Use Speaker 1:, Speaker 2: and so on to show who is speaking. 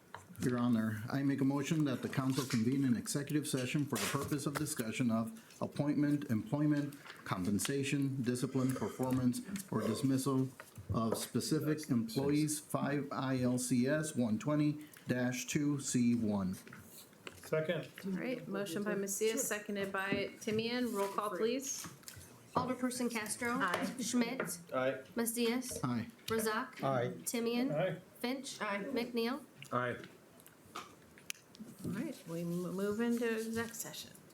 Speaker 1: Your Honor, I make a motion that the council convene an executive session for the purpose of discussion of appointment, employment, compensation, discipline, performance, or dismissal of specific employees, five ILCS one twenty two C one.
Speaker 2: Second,
Speaker 3: All right, motion by Macias, seconded by Timian. Roll call, please.
Speaker 4: Alderperson Castro.
Speaker 3: Aye.
Speaker 4: Schmidt.
Speaker 2: aye.
Speaker 4: Macias.
Speaker 1: Aye.
Speaker 4: Razak.
Speaker 5: Aye.
Speaker 4: Timian.
Speaker 2: Aye.
Speaker 4: Finch. McNeil.
Speaker 5: Aye.
Speaker 3: All right, we m- move into exec session.